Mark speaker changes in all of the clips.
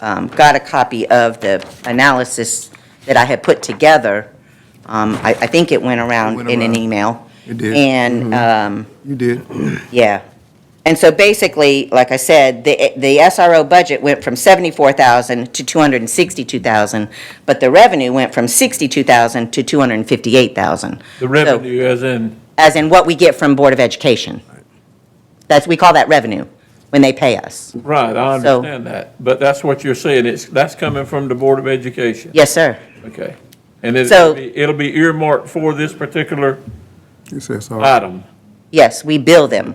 Speaker 1: um, got a copy of the analysis that I had put together. Um, I, I think it went around
Speaker 2: went
Speaker 1: in an
Speaker 2: around.
Speaker 1: email.
Speaker 2: It did. Mm-hmm.
Speaker 1: And, um,
Speaker 2: You did.
Speaker 1: yeah. And so basically, like I said, the, the SRO budget went from 74,000 to 262,000, but the revenue went from 62,000 to 258,000.
Speaker 3: The
Speaker 1: So-
Speaker 3: revenue as in,
Speaker 1: as in what we get from Board of Education. That's, we call that revenue, when they pay us.
Speaker 3: right, I
Speaker 1: So-
Speaker 3: understand that, but that's what you're saying, it's, that's coming from the Board of Education?
Speaker 1: Yes, sir.
Speaker 3: Okay. And it'll
Speaker 1: So-
Speaker 3: be, it'll be earmarked for this particular
Speaker 2: It says, all right.
Speaker 3: item,
Speaker 1: Yes, we bill them.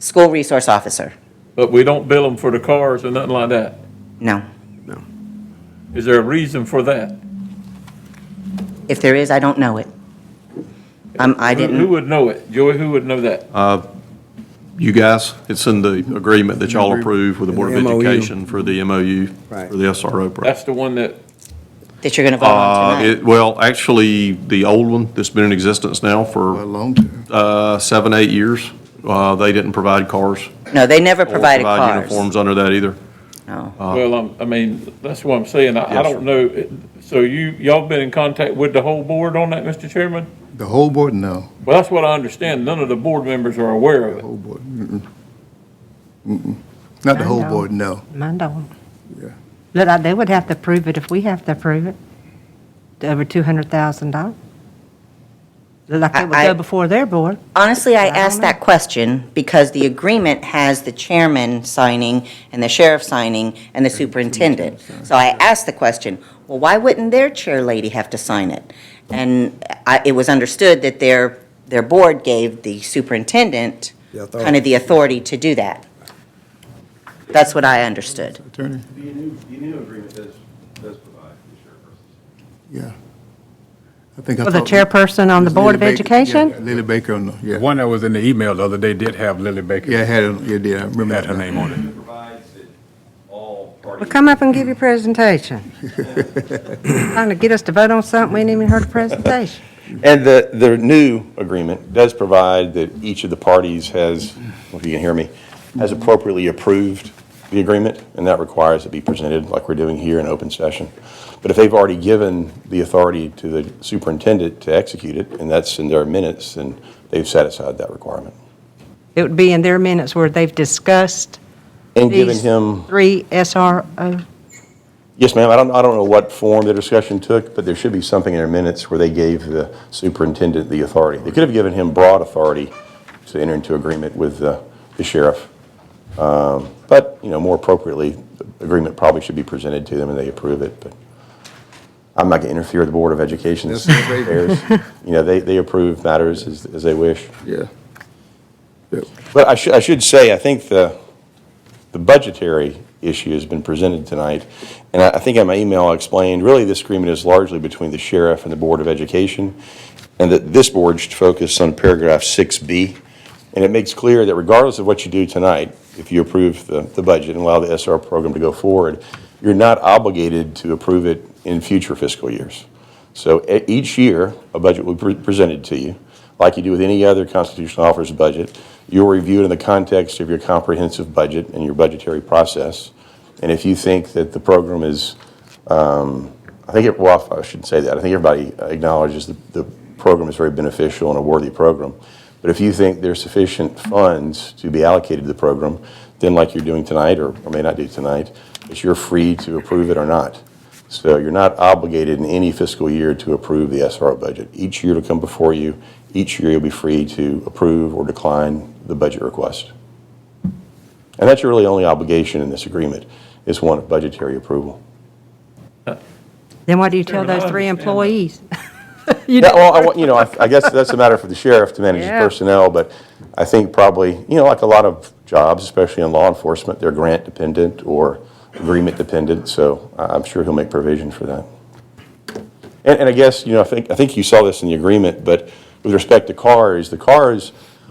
Speaker 1: School resource officer.
Speaker 3: but we don't bill them for the cars or nothing like that.
Speaker 1: No.
Speaker 3: Is there a reason for that?
Speaker 1: If there is, I don't know it. Um, I
Speaker 3: Who- Who
Speaker 1: didn't,
Speaker 3: would know it? Joey, who would know that?
Speaker 4: Uh, You guys, it's in the agreement that y'all approved with the Board of
Speaker 5: The MOU.
Speaker 4: Education for the MOU, for
Speaker 5: Right.
Speaker 4: the SRO program.
Speaker 3: That's the one that,
Speaker 1: that you're gonna vote
Speaker 4: Uh,
Speaker 1: on tonight.
Speaker 4: it- Well, actually, the old one that's been in existence now
Speaker 2: a
Speaker 4: for
Speaker 2: long time.
Speaker 4: uh, seven, eight years, uh, they didn't provide cars.
Speaker 1: No, they never
Speaker 4: or
Speaker 1: provided
Speaker 4: Provide
Speaker 1: cars.
Speaker 4: uniforms Uh, under that either.
Speaker 1: No.
Speaker 3: well, I'm- I mean, that's what I'm saying, I I
Speaker 4: Yes,
Speaker 3: don't know. So you, y'all been in contact with the whole board on that, Mr. Chairman?
Speaker 2: The whole board, no.
Speaker 3: Well, that's what I understand, none of the board members are aware of
Speaker 2: The
Speaker 3: it.
Speaker 2: whole board. Mm-mm. Mm-mm. Not the whole
Speaker 6: I know.
Speaker 2: board, no.
Speaker 6: Mine don't.
Speaker 2: Yeah.
Speaker 6: But I- they would have to approve it if we have to approve it, to over $200,000. Like it would
Speaker 1: I- I-
Speaker 6: go before their board.
Speaker 1: Honestly, I
Speaker 6: I don't
Speaker 1: asked
Speaker 6: know.
Speaker 1: that question because the agreement has the chairman signing and the sheriff signing and the superintendent. So I asked the question, well, why wouldn't their chair lady have to sign it? And I, it was understood that their, their board gave the superintendent
Speaker 5: The authority.
Speaker 1: kind of the authority to do that. That's what I understood.
Speaker 2: Attorney,
Speaker 7: The new, the new agreement does, does provide for the chairperson.
Speaker 2: yeah. I think I
Speaker 6: For the
Speaker 2: thought-
Speaker 6: chairperson on the
Speaker 2: Lily
Speaker 6: Board of
Speaker 2: Baker-
Speaker 6: Education?
Speaker 2: yeah, Lily Baker, on the-
Speaker 8: The
Speaker 2: yeah.
Speaker 8: one that was in the email the other day did have Lily Baker.
Speaker 2: Yeah, I had, it. yeah, did, I remember.
Speaker 8: Had her
Speaker 2: that.
Speaker 8: name on it.
Speaker 7: It provides that all
Speaker 6: Well,
Speaker 7: parties.
Speaker 6: come up and give your presentation. Trying to get us to vote on something, we ain't even heard a presentation.
Speaker 9: And the, the new agreement does provide that each of the parties has, if you can hear me, has appropriately approved the agreement, and that requires it be presented like we're doing here in open session. But if they've already given the authority to the superintendent to execute it, and that's in their minutes, and they've satisfied that requirement.
Speaker 6: It would be in their minutes where they've discussed
Speaker 9: And given
Speaker 6: these
Speaker 9: him,
Speaker 6: three SRO.
Speaker 9: yes, ma'am, I don't, I don't know what form the discussion took, but there should be something in their minutes where they gave the superintendent the authority. They could have given him broad authority to enter into agreement with uh, the sheriff. Um, But, you know, more appropriately, the agreement probably should be presented to them and they approve it, but I'm not going to interfere with the Board of Education.
Speaker 2: That's their baby.
Speaker 9: You know, they, they approve matters as, as they wish.
Speaker 2: Yeah. Yep.
Speaker 9: But I should, I should say, I think the, the budgetary issue has been presented tonight. And I, I think in my email I explained, really this agreement is largely between the sheriff and the Board of Education. And that this board should focus on paragraph six B. And it makes clear that regardless of what you do tonight, if you approve the, the budget and allow the SR program to go forward, you're not obligated to approve it in future fiscal years. So e- each year, a budget will be pre- presented to you, like you do with any other constitutional officer's budget. You'll review it in the context of your comprehensive budget and your budgetary process. And if you think that the program is, um, I think, it- well, I shouldn't say that. I think everybody acknowledges that the program is very beneficial and a worthy program. But if you think there's sufficient funds to be allocated to the program, then like you're doing tonight, or or may not do tonight, is you're free to approve it or not. So you're not obligated in any fiscal year to approve the SRO budget. Each year to come before you, each year you'll be free to approve or decline the budget request. And that's your really only obligation in this agreement, is one of budgetary approval.
Speaker 6: Then why do you tell
Speaker 3: Chairman, I
Speaker 6: those three
Speaker 3: understand that.
Speaker 6: employees?
Speaker 9: Yeah, well, I want- you know, I I guess that's a matter for the sheriff to manage his
Speaker 6: Yeah.
Speaker 9: personnel, but I think probably, you know, like a lot of jobs, especially in law enforcement, they're grant dependent or agreement dependent, so I- I'm sure he'll make provision for that. And, and I guess, you know, I think, I think you saw this in the agreement, but with respect to cars, the cars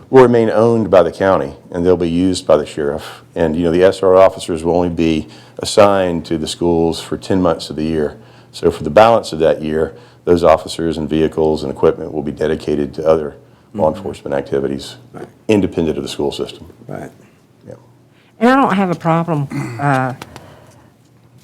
Speaker 9: will remain owned by the county and they'll be used by the sheriff. And, you know, the SRO officers will only be assigned to the schools for 10 months of the year. So for the balance of that year, those officers and vehicles and equipment will be dedicated to other law enforcement activities, independent of the school system.
Speaker 5: Right.
Speaker 9: Yeah.
Speaker 6: And I don't have a problem uh,